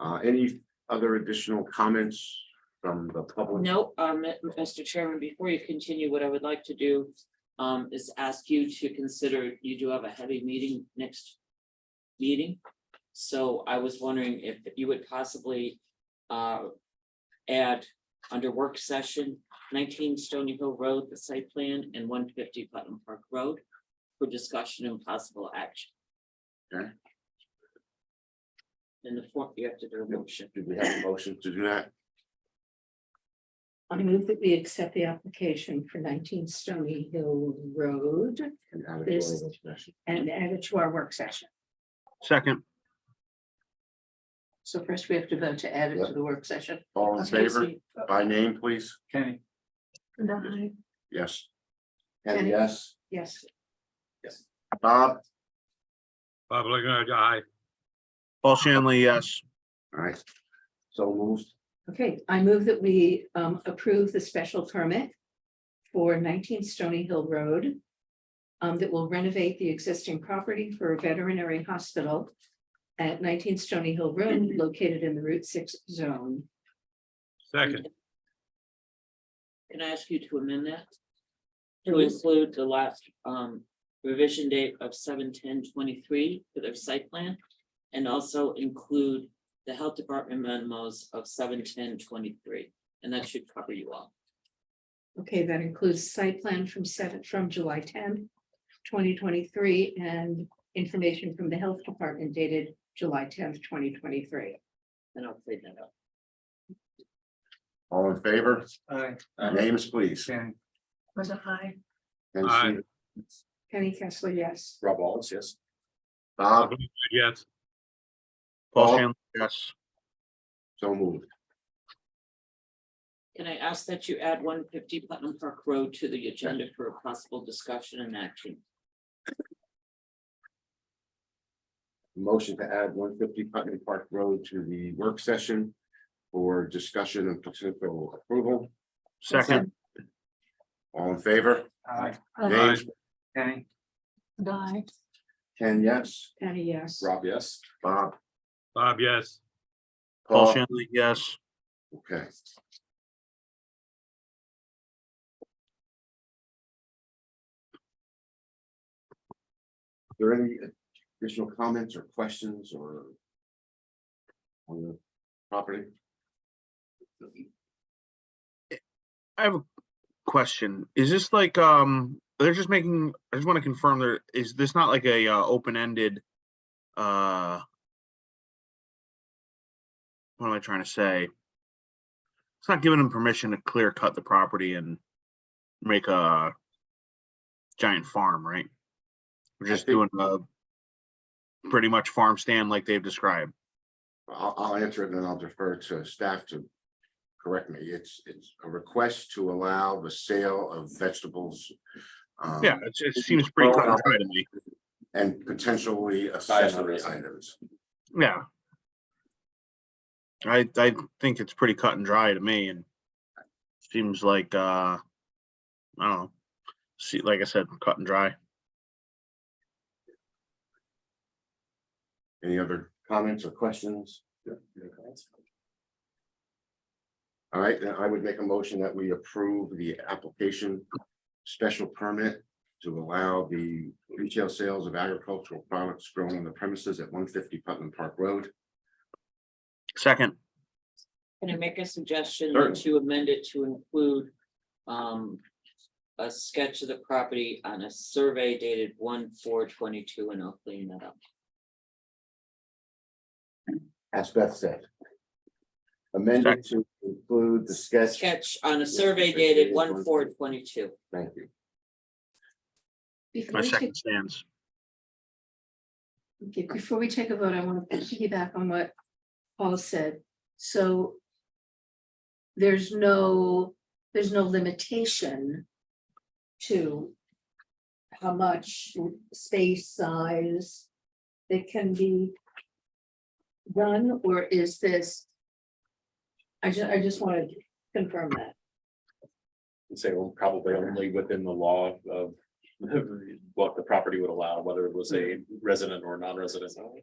Uh, any other additional comments from the public? No, um, Mr. Chairman, before you continue, what I would like to do um is ask you to consider, you do have a heavy meeting next meeting. So I was wondering if you would possibly uh add under work session nineteen Stony Hill Road, the site plan, and one fifty Putnam Park Road for discussion and possible action. Okay. In the fourth, you have to do a motion. Do we have a motion to do that? I move that we accept the application for nineteen Stony Hill Road And add it to our This- discussion? and add it to our work session. Second, So first we have to vote to add it to the work session. All in favor, by name, please? Kenny, Yes. And Kenny? yes, Yes, Bob, Bob Lagrange, aye. Paul Shanley, yes. all right. So moved, okay, I move that we um approve the special permit for nineteen Stony Hill Road um, that will renovate the existing property for a veterinary hospital at nineteen Stony Hill Road located in the Route Six zone. Second, Can I ask you to amend that? To include the last um revision date of 7-10-23 for their site plan? And also include the health department memos of 7-10-23, and that should cover you all. Okay, that includes site plan from seven, from July tenth, twenty twenty-three, and information from the health department dated July tenth, twenty twenty-three. And I'll clean that up. all in favor, aye, names, please. Kenny, Was a high? And Aye. Penny Kessler, yes. Rob Wallace, yes. Bob, Bob Lagrange, yes. Paul Paul? Shanley, yes. so moved, Can I ask that you add one fifty Putnam Park Road to the agenda for a possible discussion and action? motion to add one fifty Putney Park Road to the work session. For discussion and potential approval, Second, all in favor, aye, names, Kenny, Guy. Ken, yes, Penny, yes. Rob, yes, Bob. Bob, yes. Paul Shanley, yes. Okay. There any additional comments or questions or? On the property? I have a question. Is this like, um, they're just making, I just want to confirm there, is this not like a, uh, open-ended, uh, what am I trying to say? It's not giving them permission to clear cut the property and make a giant farm, right? We're I just doing think- a pretty much farm stand like they've described. I'll, I'll answer it and then I'll defer to staff to. Correct me, it's, it's a request to allow the sale of vegetables. um, Yeah, it's- it it's seems pretty cut grown and up. dry to me. And potentially accessory items. Yeah. I, I think it's pretty cut and dry to me and seems like, uh, I don't know. See, like I said, cut and dry. Any other comments or questions? All right, then I would make a motion that we approve the application special permit to allow the retail sales of agricultural products grown on the premises at one fifty Putnam Park Road. Second, Can I make a suggestion Certainly. to amend it to include um a sketch of the property on a survey dated one four twenty-two, and I'll clean that up. As Beth said. Amended to include the sketch. Sketch on a survey dated one four twenty-two. Thank you. Before my we second take, stands. okay, before we take a vote, I want to piggyback on what Paul said. So there's no, there's no limitation to how much space size that can be done, or is this? I ju- I just want to confirm that. and say, well, probably only within the law of what the property would allow, whether it was a resident or non-resident.